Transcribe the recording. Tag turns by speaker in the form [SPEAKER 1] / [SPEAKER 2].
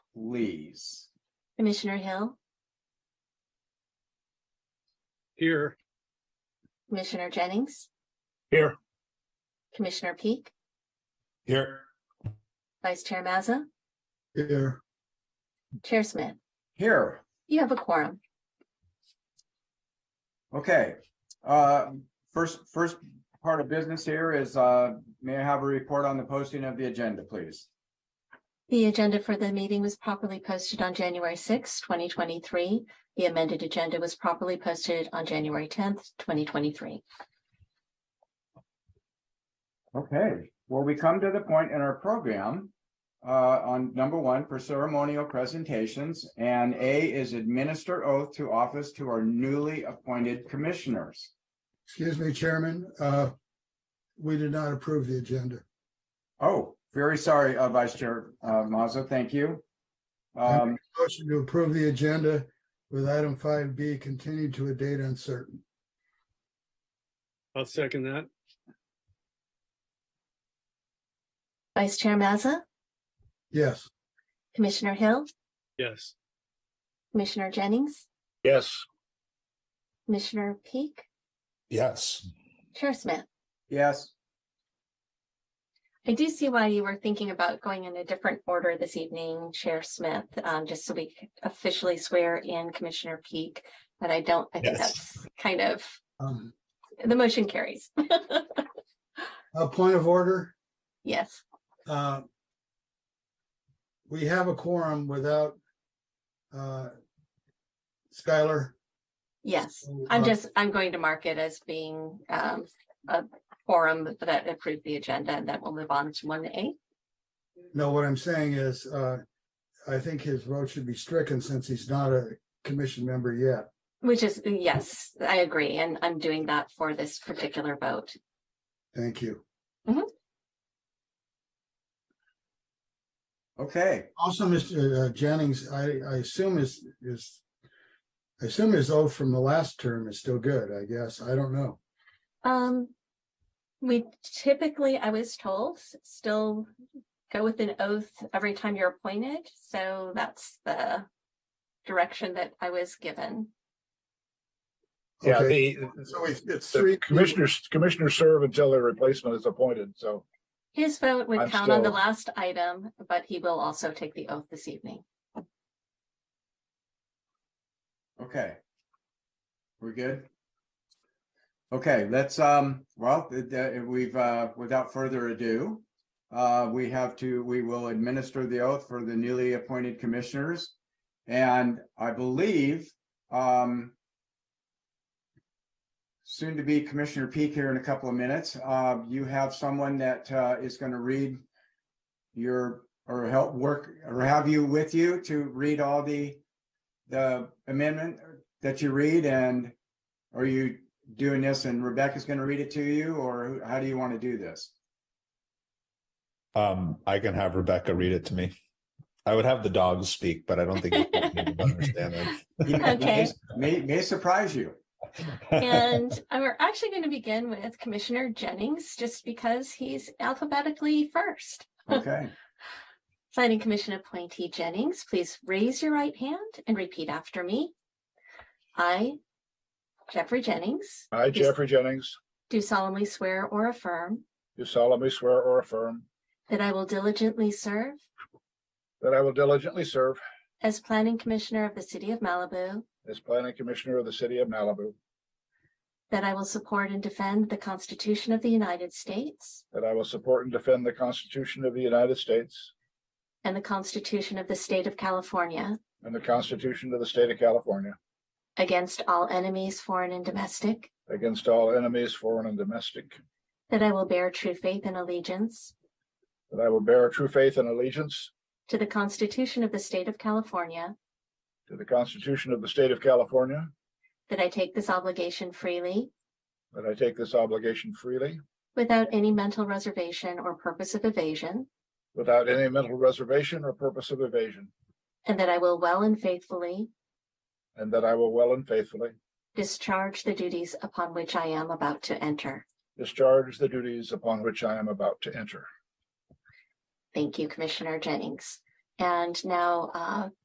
[SPEAKER 1] please.
[SPEAKER 2] Commissioner Hill,
[SPEAKER 3] Here.
[SPEAKER 2] Commissioner Jennings,
[SPEAKER 3] Here.
[SPEAKER 2] Commissioner Peak,
[SPEAKER 3] Here.
[SPEAKER 2] Vice Chair Mazza,
[SPEAKER 3] Here.
[SPEAKER 2] Chair Smith.
[SPEAKER 1] Here,
[SPEAKER 2] You have a quorum.
[SPEAKER 1] Okay, uh, first, first part of business here is, uh, may I have a report on the posting of the agenda, please?
[SPEAKER 2] The agenda for the meeting was properly posted on January sixth, twenty twenty-three. The amended agenda was properly posted on January tenth, twenty twenty-three.
[SPEAKER 1] Okay, well, we come to the point in our program, uh, on number one for ceremonial presentations, and A is administer oath to office to our newly appointed commissioners.
[SPEAKER 4] Excuse me, Chairman, uh, we did not approve the agenda.
[SPEAKER 1] Oh, very sorry, uh, Vice Chair, uh, Mazza, thank you. Um,
[SPEAKER 4] Motion to approve the agenda with item five B continued to a date uncertain.
[SPEAKER 3] I'll second that.
[SPEAKER 2] Vice Chair Mazza,
[SPEAKER 4] Yes,
[SPEAKER 2] Commissioner Hill,
[SPEAKER 3] Yes.
[SPEAKER 2] Commissioner Jennings,
[SPEAKER 3] Yes.
[SPEAKER 2] Commissioner Peak,
[SPEAKER 5] Yes,
[SPEAKER 2] Chair Smith.
[SPEAKER 1] yes,
[SPEAKER 2] I do see why you were thinking about going in a different order this evening, Chair Smith, um, just so we could officially swear in Commissioner Peak. But I don't, I think
[SPEAKER 5] Yes.
[SPEAKER 2] that's kind of,
[SPEAKER 4] um,
[SPEAKER 2] the motion carries.
[SPEAKER 4] a point of order,
[SPEAKER 2] Yes,
[SPEAKER 4] uh. We have a quorum without, uh. Skylar,
[SPEAKER 2] yes.
[SPEAKER 4] So,
[SPEAKER 2] I'm
[SPEAKER 4] uh,
[SPEAKER 2] just, I'm going to mark it as being, um, a forum that approved the agenda and then we'll move on to one A.
[SPEAKER 4] no, what I'm saying is, uh, I think his vote should be stricken since he's not a commission member yet.
[SPEAKER 2] Which is, yes, I agree. And I'm doing that for this particular vote.
[SPEAKER 4] Thank you.
[SPEAKER 1] okay,
[SPEAKER 4] Also, Mr. uh, Jennings, I, I assume is, is. I assume his oath from the last term is still good, I guess. I don't know.
[SPEAKER 2] Um, we typically, I was told, s- still go with an oath every time you're appointed, so that's the direction that I was given.
[SPEAKER 5] yeah,
[SPEAKER 4] Okay,
[SPEAKER 5] the,
[SPEAKER 4] So it's, it's
[SPEAKER 5] the
[SPEAKER 4] three.
[SPEAKER 5] commissioners, commissioners serve until their replacement is appointed, so,
[SPEAKER 2] His vote would
[SPEAKER 5] I'm
[SPEAKER 2] count on the
[SPEAKER 5] still-
[SPEAKER 2] last item, but he will also take the oath this evening.
[SPEAKER 1] okay. We're good? Okay, let's, um, well, th- th- we've, uh, without further ado, uh, we have to, we will administer the oath for the newly appointed commissioners. And I believe, um, soon to be Commissioner Peak here in a couple of minutes, uh, you have someone that, uh, is going to read your, or help work, or have you with you to read all the, the amendment that you read and are you doing this and Rebecca's going to read it to you or how do you want to do this?
[SPEAKER 5] um, I can have Rebecca read it to me. I would have the dogs speak, but I don't think people would understand
[SPEAKER 1] He may-
[SPEAKER 2] Okay.
[SPEAKER 1] May, may surprise you.
[SPEAKER 5] that.
[SPEAKER 2] And uh, we're actually going to begin with Commissioner Jennings, just because he's alphabetically first.
[SPEAKER 1] Okay.
[SPEAKER 2] Planning Commission appointee Jennings, please raise your right hand and repeat after me. I, Jeffrey Jennings,
[SPEAKER 5] I, Jeffrey Jennings,
[SPEAKER 2] do solemnly swear or affirm
[SPEAKER 5] do solemnly swear or affirm
[SPEAKER 2] that I will diligently serve
[SPEAKER 5] that I will diligently serve
[SPEAKER 2] as Planning Commissioner of the City of Malibu,
[SPEAKER 5] as planning commissioner of the city of Malibu,
[SPEAKER 2] that I will support and defend the Constitution of the United States
[SPEAKER 5] that I will support and defend the Constitution of the United States
[SPEAKER 2] and the Constitution of the State of California
[SPEAKER 5] and the Constitution of the state of California
[SPEAKER 2] against all enemies, foreign and domestic,
[SPEAKER 5] against all enemies, foreign and domestic,
[SPEAKER 2] that I will bear true faith and allegiance
[SPEAKER 5] that I will bear true faith and allegiance
[SPEAKER 2] to the Constitution of the State of California,
[SPEAKER 5] To the Constitution of the State of California,
[SPEAKER 2] that I take this obligation freely
[SPEAKER 5] that I take this obligation freely,
[SPEAKER 2] Without any mental reservation or purpose of evasion,
[SPEAKER 5] without any mental reservation or purpose of evasion,
[SPEAKER 2] and that I will well and faithfully
[SPEAKER 5] and that I will well and faithfully
[SPEAKER 2] discharge the duties upon which I am about to enter.
[SPEAKER 5] discharge the duties upon which I am about to enter.
[SPEAKER 2] Thank you, Commissioner Jennings. And now, uh,